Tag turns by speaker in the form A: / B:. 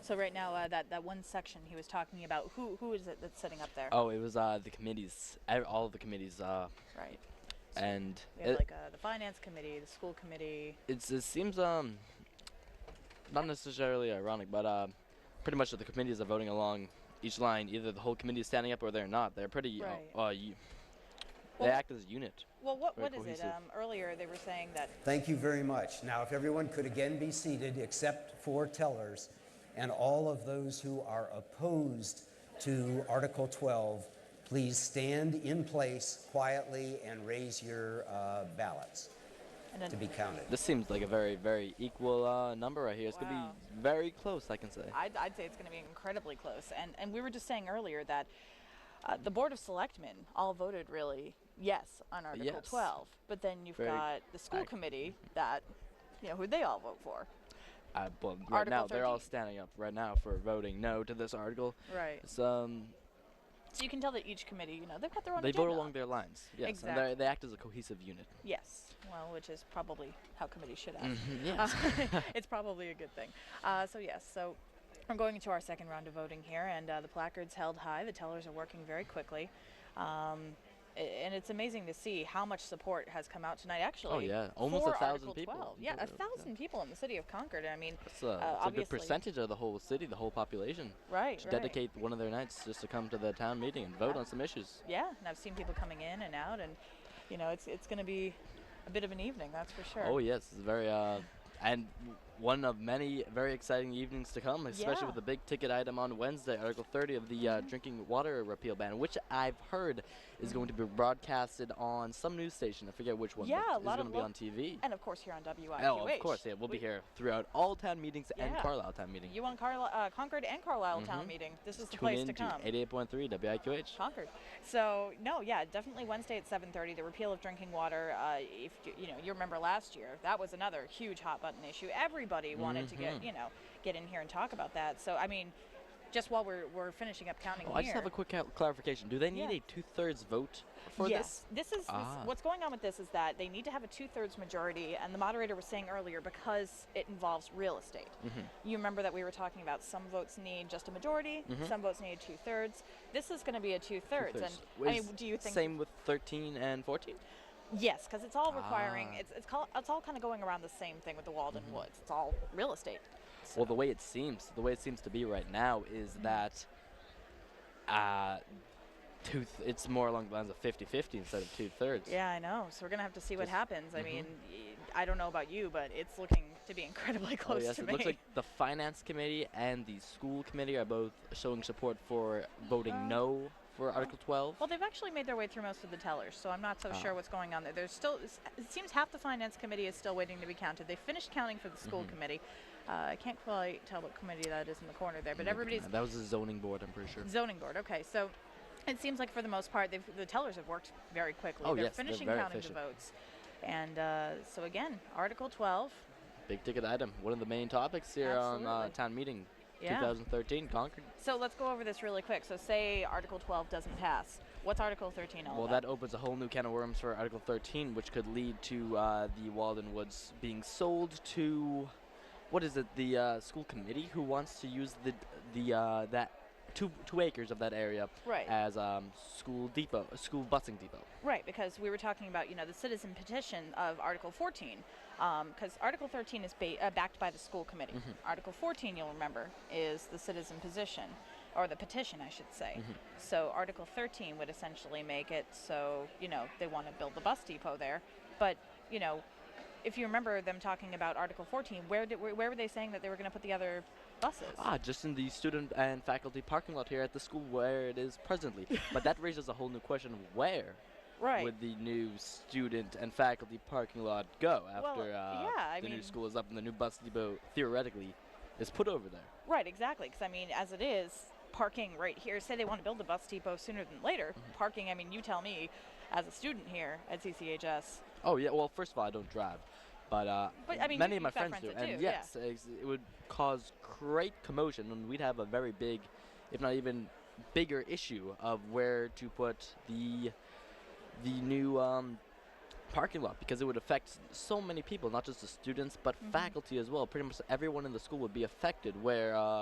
A: So right now, uh, that that one section he was talking about, who who is it that's sitting up there?
B: Oh, it was uh, the committees, ev- all of the committees, uh,
A: Right.
B: and
A: We have
B: it,
A: like uh, the finance committee, the school committee.
B: it's, it seems um, not necessarily ironic, but uh, pretty much the committees are voting along each line. Either the whole committee is standing up or they're not. They're pretty.
A: Right.
B: Uh, uh, you,
A: Well-
B: they act as a unit.
A: Well, what
B: Very
A: what is it?
B: cohesive.
A: Um, earlier they were saying that
C: Thank you very much. Now, if everyone could again be seated except for tellers and all of those who are opposed to Article 12, please stand in place quietly and raise your uh, ballots
A: and then
C: to be counted.
B: This seems like a very, very equal uh, number right here. It's
A: Wow.
B: gonna be very close, I can say.
A: I'd, I'd say it's going to be incredibly close. And and we were just saying earlier that uh, the board of selectmen all voted really yes on Article
B: Yes.
A: 12, but then you've
B: Very
A: got the school
B: ac-
A: committee that you know who they all vote for.
B: Uh, but right
A: Article
B: now, they're all
A: 13.
B: standing up right now for voting no to this article.
A: Right.
B: It's, um,
A: So you can tell that each committee, you know, they've got their own.
B: they vote
A: agenda.
B: along their lines. Yes, and
A: Exactly.
B: they're- they act as a cohesive unit.
A: Yes, well, which is probably how committees should act.
B: Mm-hmm, yes.
A: it's probably a good thing. Uh, so yes, so we're going into our second round of voting here, and uh, the placards held high. The tellers are working very quickly, um, a- and it's amazing to see how much support has come out tonight. Actually,
B: Oh, yeah. Almost
A: for
B: a thousand
A: Article
B: people.
A: 12. Yeah,
B: Yeah.
A: a thousand people in the city of Concord. I mean,
B: It's a,
A: uh,
B: it's a good
A: obviously-
B: percentage of the whole city, the whole population.
A: Right,
B: Just
A: right.
B: dedicate one of their nights just to come to the town meeting and vote on some issues.
A: Yeah, and I've seen people coming in and out, and you know, it's it's going to be a bit of an evening, that's for sure.
B: Oh yes, it's very uh, and w- one of many very exciting evenings to come, especially
A: Yeah. Mm-hmm.
B: with the big ticket item on Wednesday, Article 30 of the uh, drinking water repeal ban, which I've heard is going to be broadcasted on some news station. I forget which one.
A: Yeah,
B: but
A: a
B: it's
A: lot
B: going
A: of
B: to be
A: lo-
B: on TV.
A: And of course, here on WIQH.
B: Oh, of course, yeah, we'll be
A: we-
B: here throughout all town meetings and
A: Yeah.
B: Carlisle town meeting.
A: You want Carli- uh, Concord and Carlisle town meeting? This is the
B: Mm-hmm. Tune
A: place
B: in
A: to come.
B: 88.3 WIQH.
A: Concord. So no, yeah, definitely Wednesday at 7:30. The repeal of drinking water. Uh, if you, you know, you remember last year, that was another huge hot button issue. Everybody wanted to
B: Mm-hmm.
A: get you know get in here and talk about that. So I mean, just while we're, we're finishing up counting
B: Oh,
A: here.
B: I just have a quick cal- clarification. Do they need
A: Yeah.
B: a two-thirds vote for
A: yes,
B: this?
A: this, is this-
B: Ah.
A: what's going on with this is that they need to have a two-thirds majority, and the moderator was saying earlier because it involves real estate.
B: Mm-hmm.
A: You remember that we were talking about some votes need just a majority, some votes need two-thirds. This is going to be a two-thirds,
B: Mm-hmm. Two-thirds.
A: and I mean,
B: Is
A: do you think
B: same with 13 and 14?
A: Yes, because it's all requiring
B: Ah.
A: it's it's, call, it's all kind of going around the same thing with the Walden
B: Mm-hmm.
A: Woods. It's all real estate.
B: Well, the way it seems, the way it seems to be right now is
A: Mm-hmm.
B: that uh, two th- it's more along the lines of 50-50 instead of two-thirds.
A: Yeah, I know. So we're gonna have to see what
B: Just-
A: happens.
B: Mm-hmm.
A: I mean, y- I don't know about you, but it's looking to be incredibly
B: Oh,
A: close
B: yes,
A: to
B: it
A: me.
B: looks like the finance committee and the school committee are both showing support for voting no for Article 12.
A: Uh-huh. well, they've actually made their way through most of the tellers, so I'm not so
B: Oh.
A: sure what's going on there. There's still it seems half the finance committee is still waiting to be counted. They finished counting for the school
B: Mm-hmm.
A: committee. Uh, I can't quite tell what committee that is in the corner there, but everybody's Mm-hmm.
B: that was the zoning board, I'm pretty sure.
A: Zoning board. Okay, so it seems like for the most part, they've, the tellers have worked very quickly.
B: Oh,
A: they're
B: yes, they're
A: finishing
B: very
A: counting
B: efficient.
A: the votes, and uh, so again, Article 12.
B: Big ticket item, one of the main topics here on uh,
A: Absolutely.
B: town meeting
A: Yeah.
B: 2013 Concord.
A: So let's go over this really quick. So say Article 12 doesn't pass. What's Article 13 all
B: Well,
A: about?
B: that opens a whole new can of worms for Article 13, which could lead to uh, the Walden Woods being sold to, what is it, the uh, school committee who wants to use the the uh, that two two acres of that area
A: Right.
B: as um, school depot, a school busing depot.
A: Right, because we were talking about you know the citizen petition of Article 14, because Article 13 is ba- uh, backed by the school committee. Article 14, you'll remember, is the citizen position, or the petition, I should say. So Article 13 would essentially make it so you know they want to build the bus depot there, but you know if you remember them talking about Article 14, where did where, where were they saying that they were going to put the other buses?
B: Ah, just in the student and faculty parking lot here at the school where it is presently. but that raises a whole new question: Where
A: right.
B: would the new student and faculty parking lot go after uh,
A: yeah, I
B: the new
A: mean- school
B: school is up and the new bus depot theoretically is put over there?
A: Right, exactly. Because I mean, as it is, parking right here. Say they want to build a bus depot sooner than later. Parking. I mean, you tell me, as a student here at CCHS.
B: Oh yeah. Well, first of all, I don't drive, but, uh,
A: But, I mean,
B: many
A: you-
B: of my
A: you've got
B: friends, do,
A: friends that
B: and
A: do, yeah.
B: yes, it's- it would cause great commotion, and we'd have a very big, if not even bigger, issue of where to put the the new um, parking lot because it would affect
A: Mm-hmm.
B: so many people, not just the students, but faculty as well. Pretty much everyone in the school would be affected. Where uh,